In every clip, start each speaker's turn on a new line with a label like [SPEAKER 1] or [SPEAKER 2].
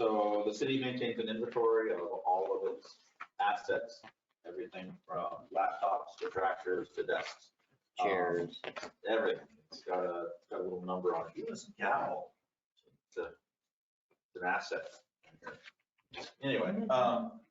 [SPEAKER 1] So the city maintains an inventory of all of its assets, everything from laptops to tractors to desks,
[SPEAKER 2] Um, chairs.
[SPEAKER 1] everything. It's got a, it's got a little number on it. Even this gavel, it's a- it's an asset. Anyway, um,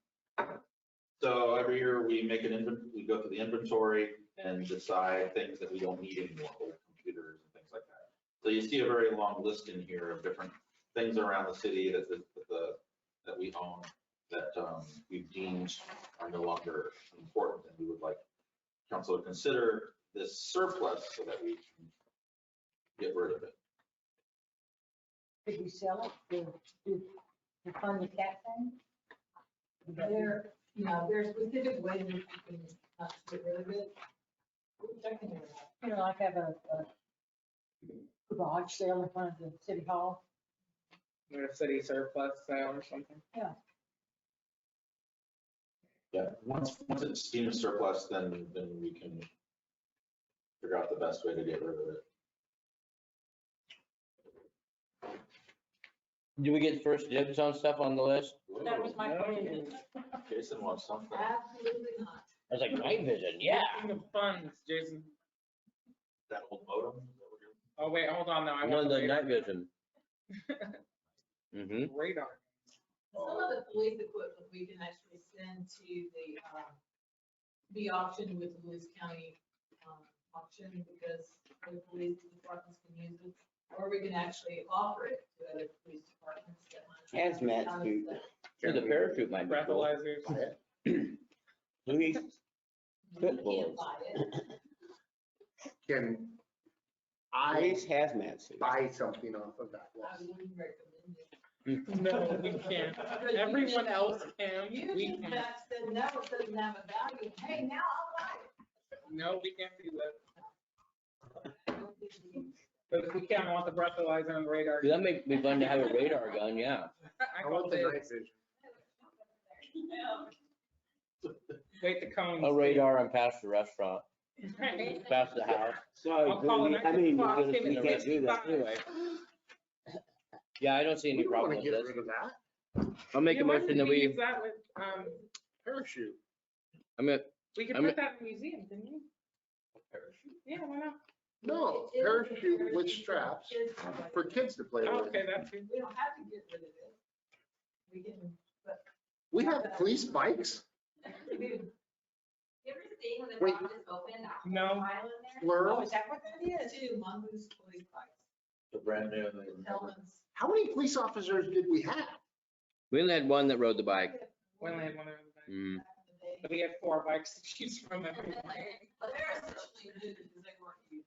[SPEAKER 1] so every year we make an invent, we go through the inventory and decide things that we don't need anymore, old computers and things like that. So you see a very long list in here of different things around the city that the, that the- that we own, that um, we've deemed are no longer important and we would like council to consider this surplus so that we can get rid of it.
[SPEAKER 3] Could we sell it to, to, to fund the cat thing?
[SPEAKER 4] There, you know, there's specific ways that you can uh, get rid of it. We're checking it out.
[SPEAKER 3] You know, like have a, a garage sale in front of the city hall?
[SPEAKER 5] Or a city surplus sale or something.
[SPEAKER 1] Yeah, once, once it's deemed a surplus, then, then we can figure out the best way to get rid of it.
[SPEAKER 2] Do we get first dibs on stuff on the list?
[SPEAKER 3] That was my
[SPEAKER 5] No.
[SPEAKER 3] question.
[SPEAKER 1] Jason wants something.
[SPEAKER 4] Absolutely not.
[SPEAKER 2] I was like, night vision, yeah.
[SPEAKER 5] Getting The funds, Jason.
[SPEAKER 1] That old modem? is that what you're-
[SPEAKER 5] Oh, wait, hold on, no, I
[SPEAKER 2] No,
[SPEAKER 5] want
[SPEAKER 2] the
[SPEAKER 5] the
[SPEAKER 2] night vision. hmm
[SPEAKER 5] radar.
[SPEAKER 4] Some of the police equipment we can actually send to the, um, be auctioned with the Lewis County um, auction because the police departments can use it. Or we can actually offer it to other police departments that might.
[SPEAKER 2] Hazmat suit. Yeah, the parachute might be cool.
[SPEAKER 5] Breathalyzers.
[SPEAKER 2] Louis,
[SPEAKER 4] You can't buy it.
[SPEAKER 6] Can I
[SPEAKER 2] Louis hazmat suit.
[SPEAKER 6] buy something off of that
[SPEAKER 4] I
[SPEAKER 6] list?
[SPEAKER 4] wouldn't recommend it.
[SPEAKER 5] No, we can't.
[SPEAKER 4] Because you
[SPEAKER 5] Everyone
[SPEAKER 4] can-
[SPEAKER 5] else can,
[SPEAKER 4] You
[SPEAKER 5] we
[SPEAKER 4] just
[SPEAKER 5] can't.
[SPEAKER 4] have said, no, it doesn't have a value. Hey, now I'll buy it.
[SPEAKER 5] No, we can't do that.
[SPEAKER 4] I don't think you can.
[SPEAKER 5] But if we can, I want the breathalyzer and radar.
[SPEAKER 2] That'd make me fun to have a radar gun, yeah.
[SPEAKER 5] I
[SPEAKER 6] I want
[SPEAKER 5] called
[SPEAKER 6] the
[SPEAKER 5] it,
[SPEAKER 6] night vision.
[SPEAKER 5] wait, the cones.
[SPEAKER 2] A radar and past the restaurant,
[SPEAKER 5] Right.
[SPEAKER 2] past the house.
[SPEAKER 7] Sorry,
[SPEAKER 5] I'll call
[SPEAKER 7] but
[SPEAKER 5] it
[SPEAKER 7] we- I mean, we're gonna-
[SPEAKER 5] nine
[SPEAKER 7] we can't do that anyway.
[SPEAKER 2] Yeah, I don't see
[SPEAKER 6] We
[SPEAKER 2] any
[SPEAKER 6] don't want
[SPEAKER 2] problem
[SPEAKER 6] to
[SPEAKER 2] with
[SPEAKER 6] get
[SPEAKER 2] this.
[SPEAKER 6] rid of that.
[SPEAKER 2] I'll make a motion that we,
[SPEAKER 5] Use that with, um,
[SPEAKER 6] Parachute.
[SPEAKER 2] I'm gonna,
[SPEAKER 5] we could
[SPEAKER 2] I'm-
[SPEAKER 5] put that in museums, didn't we? Yeah, why not?
[SPEAKER 6] No,
[SPEAKER 4] It- it-
[SPEAKER 6] parachute with straps
[SPEAKER 4] It's-
[SPEAKER 6] for kids to play
[SPEAKER 5] Oh,
[SPEAKER 6] with.
[SPEAKER 5] Okay, that's good.
[SPEAKER 4] We don't have to get rid of it. We can, but.
[SPEAKER 6] We have police bikes,
[SPEAKER 8] You ever seen when the
[SPEAKER 6] Wait.
[SPEAKER 8] top is open, that whole
[SPEAKER 5] No.
[SPEAKER 8] pile in there?
[SPEAKER 3] Oh,
[SPEAKER 6] plural.
[SPEAKER 3] is that what that
[SPEAKER 4] Yeah,
[SPEAKER 3] is?
[SPEAKER 4] two mongoose police bikes,
[SPEAKER 1] The brand new. they never-
[SPEAKER 4] helmets.
[SPEAKER 6] How many police officers did we have?
[SPEAKER 2] we only had one that rode the bike.
[SPEAKER 5] We only had one of them.
[SPEAKER 2] Mm.
[SPEAKER 4] Back in the day.
[SPEAKER 5] But we had four bikes to choose from. every day.
[SPEAKER 4] But they're essentially new because they weren't used.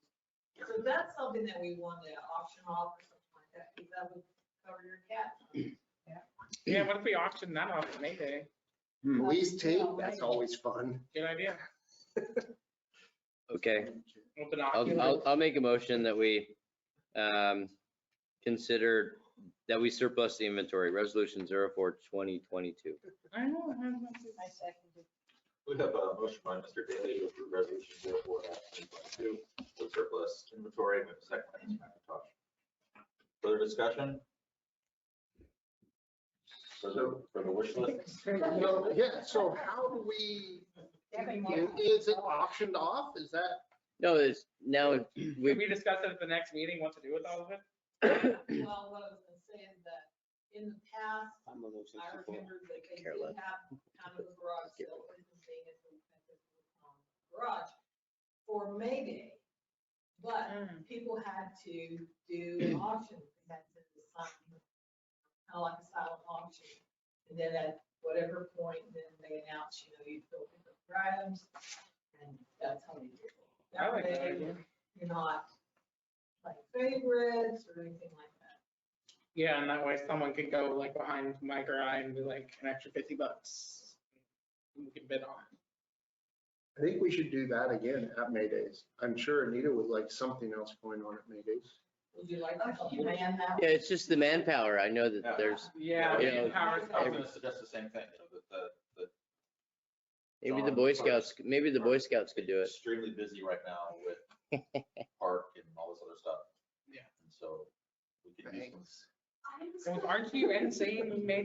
[SPEAKER 4] So that's something that we want to auction off or something like that, because that would cover your cat.
[SPEAKER 5] Yeah, what if we auctioned that off at May Day?
[SPEAKER 6] Police
[SPEAKER 4] Yeah,
[SPEAKER 6] tape, that's
[SPEAKER 4] right.
[SPEAKER 6] always fun.
[SPEAKER 5] Good idea.
[SPEAKER 2] Okay,
[SPEAKER 5] With
[SPEAKER 2] I'll, I'll,
[SPEAKER 5] binoculars.
[SPEAKER 2] I'll make a motion that we, um, consider, that we surplus the inventory, resolution zero four twenty twenty-two.
[SPEAKER 5] I know, I have one too.
[SPEAKER 3] I seconded.
[SPEAKER 1] We have a motion by Mr. Daly to approve resolution zero four dash twenty twenty-two, the surplus inventory, we have a second by Ms. McIntosh. Further discussion? For the, for the wish list?
[SPEAKER 6] No, Yeah, so how do we, is it auctioned off? Is that?
[SPEAKER 2] No, it's, now,
[SPEAKER 5] Can
[SPEAKER 2] we,
[SPEAKER 5] we discuss it at the next meeting, what to do with all of it?
[SPEAKER 4] Well, what I was gonna say is that in the past, I remember that they
[SPEAKER 2] Care
[SPEAKER 4] did
[SPEAKER 2] less.
[SPEAKER 4] have kind of a garage sale, it was being at the at the, um, garage for May Day. But
[SPEAKER 5] Mm.
[SPEAKER 4] people had to do an auction, they had to sign, kind of like a silent auction. And then at whatever point, then they announce, you know, you fill in the items, and that's how you do it.
[SPEAKER 5] I
[SPEAKER 4] That
[SPEAKER 5] like that
[SPEAKER 4] way,
[SPEAKER 5] idea.
[SPEAKER 4] you're not like favorites or anything like that.
[SPEAKER 5] Yeah, and that way someone could go like behind Mike or I and be like, an extra fifty bucks. We can bid on.
[SPEAKER 6] I think we should do that again at May Days. I'm sure Anita would like something else going on at May Days.
[SPEAKER 4] Would you like to help man that?
[SPEAKER 2] yeah, it's just the manpower. I know that there's,
[SPEAKER 5] Yeah.
[SPEAKER 2] Yeah.
[SPEAKER 1] I
[SPEAKER 5] manpower
[SPEAKER 1] was
[SPEAKER 5] is
[SPEAKER 1] going
[SPEAKER 5] tough.
[SPEAKER 1] to suggest the same thing, you know, that the,
[SPEAKER 2] maybe the Boy Scouts, maybe the Boy Scouts could do it.
[SPEAKER 1] Extremely busy right now with park and all this other stuff.
[SPEAKER 5] Yeah.
[SPEAKER 1] And so we could use some
[SPEAKER 6] Thanks.
[SPEAKER 5] Aren't you insane? You made